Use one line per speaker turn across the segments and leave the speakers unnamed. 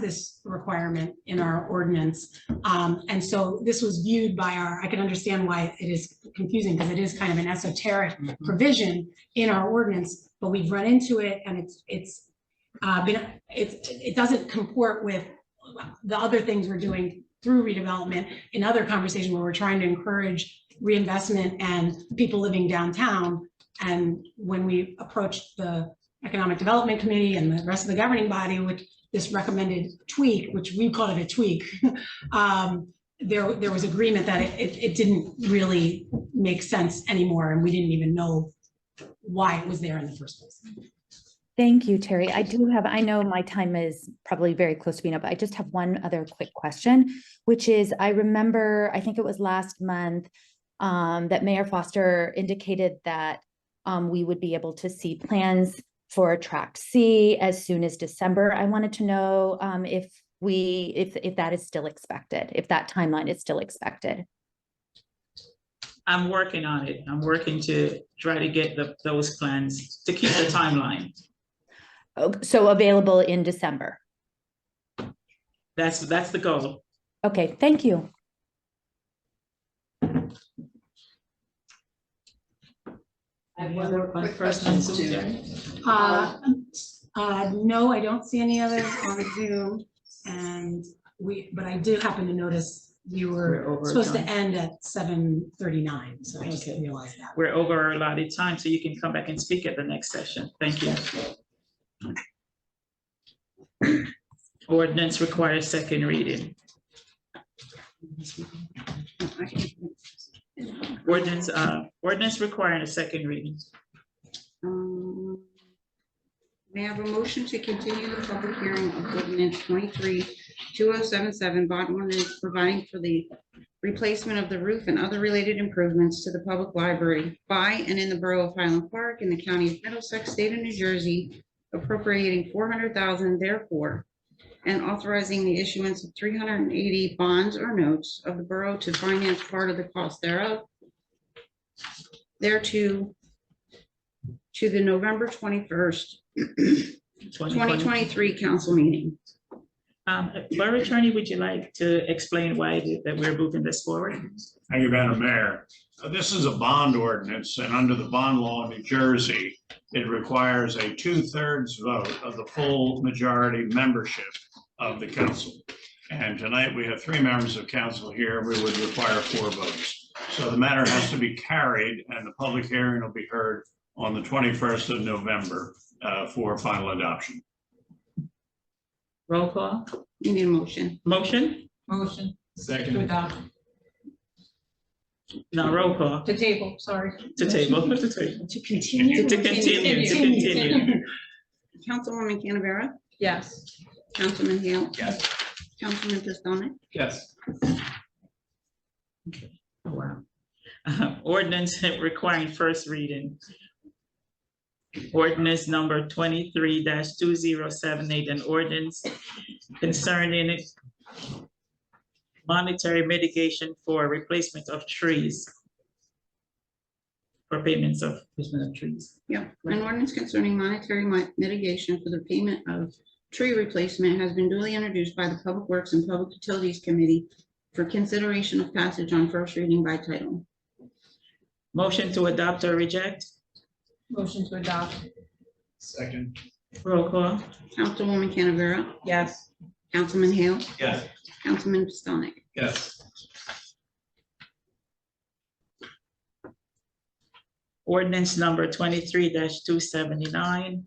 this requirement in our ordinance. Um, and so this was viewed by our, I can understand why it is confusing because it is kind of an esoteric provision in our ordinance, but we've run into it and it's, it's, uh, been, it's, it doesn't comport with the other things we're doing through redevelopment in other conversations where we're trying to encourage reinvestment and people living downtown. And when we approached the Economic Development Committee and the rest of the governing body, which this recommended tweak, which we call it a tweak, um, there, there was agreement that it- it, it didn't really make sense anymore, and we didn't even know why it was there in the first place.
Thank you, Terry. I do have, I know my time is probably very close to being up. but I just have one other quick question, which is I remember, I think it was last month, um, that Mayor Foster indicated that um, we would be able to see plans for tract C as soon as December. I wanted to know um, if we, if, if that is still expected, if that timeline is still expected.
I'm working on it. I'm working to try to get the, those plans to keep the timeline.
Oh, So available in December.
That's, that's the goal.
Okay, thank you.
Any other
quick
questions,
questions too.
Uh, uh, no, I don't see any others on Zoom, and we, but I did happen to notice you
We're
were
over
supposed to
time.
end at seven thirty-nine, so I just
Okay.
didn't realize that.
We're over our allotted time, so you can come back and speak at the next session. Thank you. Ordinance requires second reading. Ordinance, uh, ordinance requiring a second reading.
Um, May I have a motion to continue the public hearing of ordinance twenty-three two oh seven seven, bond ordinance providing for the replacement of the roof and other related improvements to the public library by and in the borough of Highland Park in the county of Middlesex, state of New Jersey, appropriating four hundred thousand therefore, and authorizing the issuance of three hundred and eighty bonds or notes of the borough to finance part of the cost thereof. Thereto to the November twenty-first, twenty
2020.
twenty-three council meeting.
Um, Borough Attorney, would you like to explain why that we're moving this forward?
Thank you, Madam Mayor. Uh, This is a bond ordinance, and under the bond law in New Jersey, it requires a two-thirds vote of the full majority membership of the council. And tonight, we have three members of council here. We would require four votes. So the matter has to be carried, and the public hearing will be heard on the 21st of November uh, for final adoption.
Roll call,
You need a motion.
motion?
Motion to
Second.
adopt,
No, roll call,
to table, sorry.
to table, to table.
To continue.
To continue, to continue.
Councilwoman Canavera?
Yes,
Councilman Hale?
Yes.
Councilman Pistonik?
Yes.
Oh, Wow. Um, Ordinance requiring first reading. Ordinance number twenty-three two zero seven eight, an ordinance concerning it- monetary mitigation for replacement of trees. For payments of, replacement of trees.
Yeah, an ordinance concerning monetary mi- mitigation for the payment of tree replacement has been duly introduced by the Public Works and Public Utilities Committee for consideration of passage on first reading by title.
Motion to adopt or reject,
motion to adopt,
Second.
roll call.
Councilwoman Canavera?
yes,
Councilman Hale?
Yes.
Councilman Pistonik?
Yes.
Ordinance number twenty-three two seventy-nine,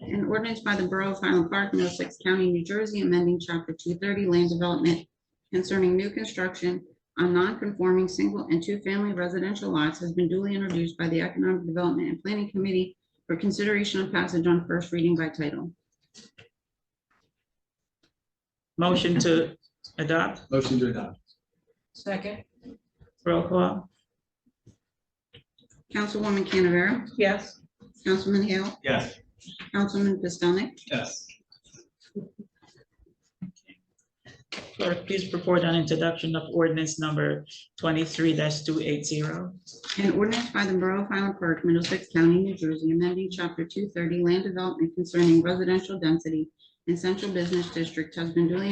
An ordinance by the Borough of Highland Park, Middlesex County, New Jersey, amending chapter two thirty land development concerning new construction on non-conforming single and two-family residential lots has been duly introduced by the Economic Development and Planning Committee for consideration of passage on first reading by title.
motion to adopt,
Motion to adopt.
second,
roll call.
Councilwoman Canavera?
yes,
Councilman Hale?
Yes.
Councilman Pistonik?
Yes.
Clerk, please report on introduction of ordinance number twenty-three two eight zero.
An ordinance by the Borough of Highland Park, Middlesex County, New Jersey, amending chapter two thirty land development concerning residential density and Central Business District has been duly